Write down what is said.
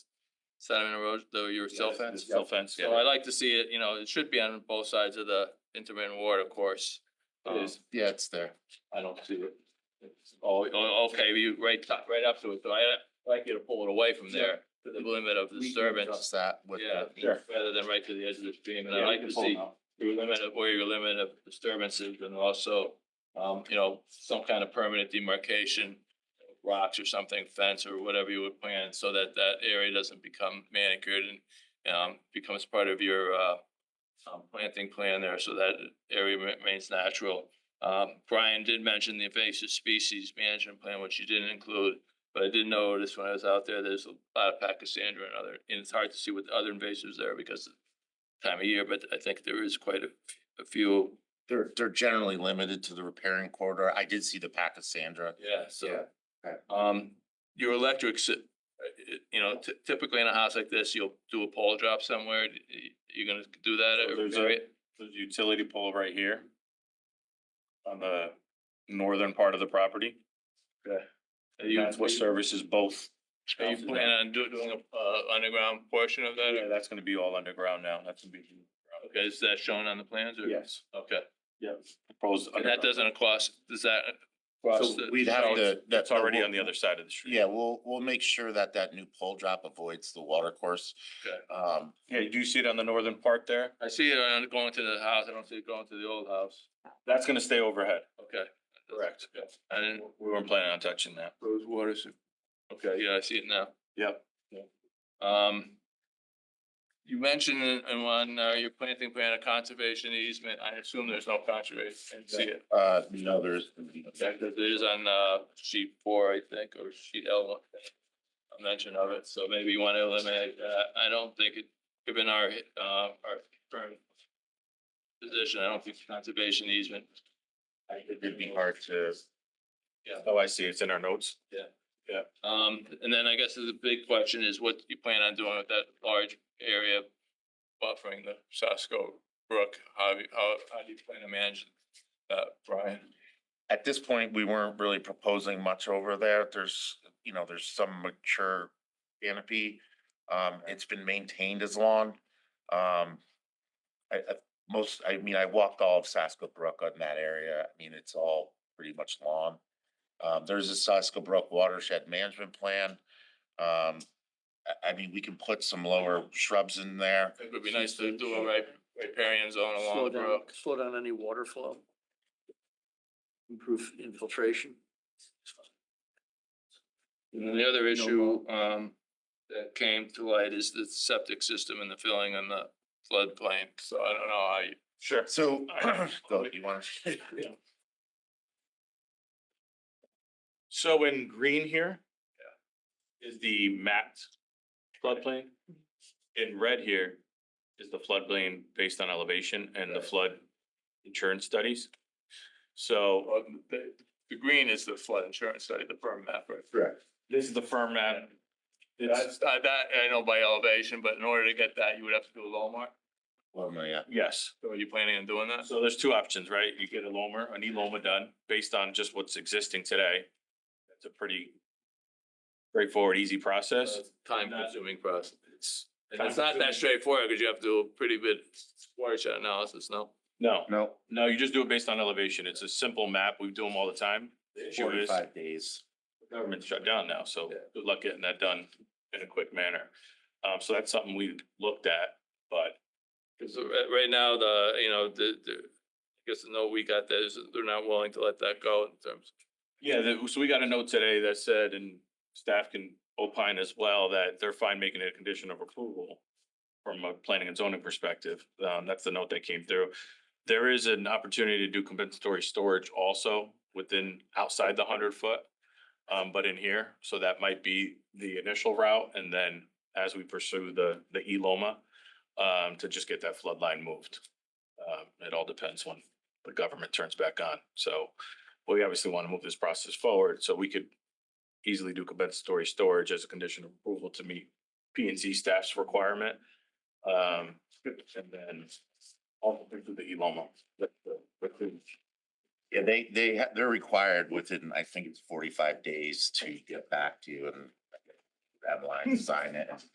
sediment erosion, though your cell fence? Cell fence, So I yeah. like to see it, you know, it should be on both sides of the intermittent ward, of course. It is. Um, Yeah, it's there. I don't see it. Oh, oh, okay, you right top, right up to it, so I I'd like you to pull it away from there, to the limit of disturbance. Adjust that with Yeah, the. Sure. rather than right to the edge of the stream, and I Yeah, you like can to pull it see out. your limit of where your limit of disturbances and also, um, you know, some kind of permanent demarcation, rocks or something, fence or whatever you would plan, so that that area doesn't become manicured and um, becomes part of your uh, um, planting plan there, so that area remains natural. Um, Brian did mention the invasive species management plan, which you didn't include, but I did notice when I was out there, there's a lot of Pachysandra and other, and it's hard to see what the other invasives there because of time of year, but I think there is quite a, a few. They're, they're generally limited to the repairing corridor. I did see the pack of Sandra. Yeah, so. okay. Um, your electrics, uh, uh, you know, ty- typically in a house like this, you'll do a pole drop somewhere. Y- y- You gonna do that? So or there's a- bury it? There's a utility pole right here. On the northern part of the property. Are you, That's what services both. are you houses now. planning on do- doing a, uh, underground portion of that? Yeah, or- that's gonna be all underground now. That's gonna be. Okay, is that shown on the plans or? Yes. Okay, Yes. Proposed. and that doesn't cost, does that? So cross the- we'd have to. That's already on the other side of the street. Yeah, we'll, we'll make sure that that new pole drop avoids the water course. Okay. Um, Yeah, do you see it on the northern part there? I see it on going to the house. I don't see it going to the old house. That's gonna stay overhead. Okay. Correct. Okay. I didn't. We weren't planning on touching that. Rose waters. Okay, yeah, I see it now. Yep. Um. You mentioned in in one, uh, your planting plan, a conservation easement. I assume there's no conservation. I didn't See it. uh, no, there's. Okay, 'cause it is on, uh, sheet four, I think, or sheet L one. A mention of it, so maybe you want to eliminate that. I don't think it, given our, uh, our current. Position, I don't think conservation easement. I think It'd be hard to. Yeah. Oh, I see. It's in our notes. Um, and then I guess the big question is what you plan on doing with that large area buffering the Sasko Brook? How, do you- how, how do you plan to manage that, Brian? At this point, we weren't really proposing much over there. There's, you know, there's some mature canopy. Um, it's been maintained as lawn. Um, I, I, most, I mean, I walked all of Sasko Brook in that area. I mean, it's all pretty much lawn. Um, there's a Sasko Brook watershed management plan. Um, I, I mean, we can put some lower shrubs in there. I think it would be nice to do a rip- riparian zone along Slow the down, brook. slow down any water flow. Improve infiltration. And then the other No issue, mold. um, that came to light is the septic system and the filling on the floodplain. So I don't know how you, Sure. So, I- go, you want to? So in green here is the mapped floodplain. Mm-hmm. In red here is the floodplain based on elevation and the Right. flood insurance studies. So uh, well, the, the green is the flood insurance study, the firm map, right? this is the firm map. It's, That's, uh, that, I know by elevation, but in order to get that, you would have to do a Lomar. Well, no, yeah. yes. So are you planning on doing that? So there's two options, right? You get a Loma, an E-Loma done based on just what's existing today. That's a pretty straightforward, easy process. Time consuming process. It's. Uh, And it's not that straightforward because you have to do a pretty bit watershed analysis, no? No, No. no, you just do it based on elevation. It's a simple map. We do them all the time. The issue is Forty-five days. government's shut down now, so Yeah. good luck getting that done in a quick manner. Um, so that's something we looked at, but Because right now, the, you know, the, the, I guess the note we got that is they're not willing to let that go in terms. yeah, that- so we got a note today that said, and staff can opine as well, that they're fine making it a condition of approval from a planning and zoning perspective. Um, that's the note that came through. There is an opportunity to do compensatory storage also within, outside the hundred foot. Um, but in here, so that might be the initial route and then as we pursue the, the E-Loma, um, to just get that flood line moved. Um, it all depends when the government turns back on. So we obviously want to move this process forward, so we could easily do compensatory storage as a condition of approval to meet P and Z staff's requirement. Um, and then all the way through the E E-Loma. That's the- that's the- Yeah, they, they, ha- they're required within, I think it's forty-five days to get back to you and that line, sign it.